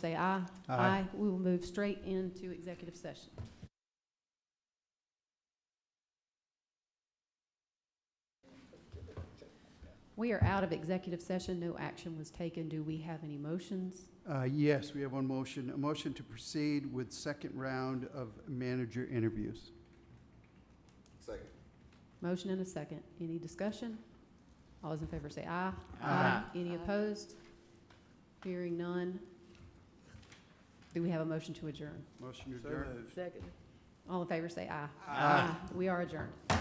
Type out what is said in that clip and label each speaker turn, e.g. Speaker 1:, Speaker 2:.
Speaker 1: say aye.
Speaker 2: Aye.
Speaker 1: We will move straight into executive session. We are out of executive session. No action was taken. Do we have any motions?
Speaker 2: Uh, Yes, we have one motion, a motion to proceed with second round of manager interviews.
Speaker 3: Second.
Speaker 1: Motion and a second. Any discussion? All those in favor say aye.
Speaker 2: Aye.
Speaker 1: Any opposed? Hearing none. Do we have a motion to adjourn?
Speaker 2: Motion to adjourn.
Speaker 4: Second.
Speaker 1: All in favor say aye.
Speaker 2: Aye.
Speaker 1: We are adjourned.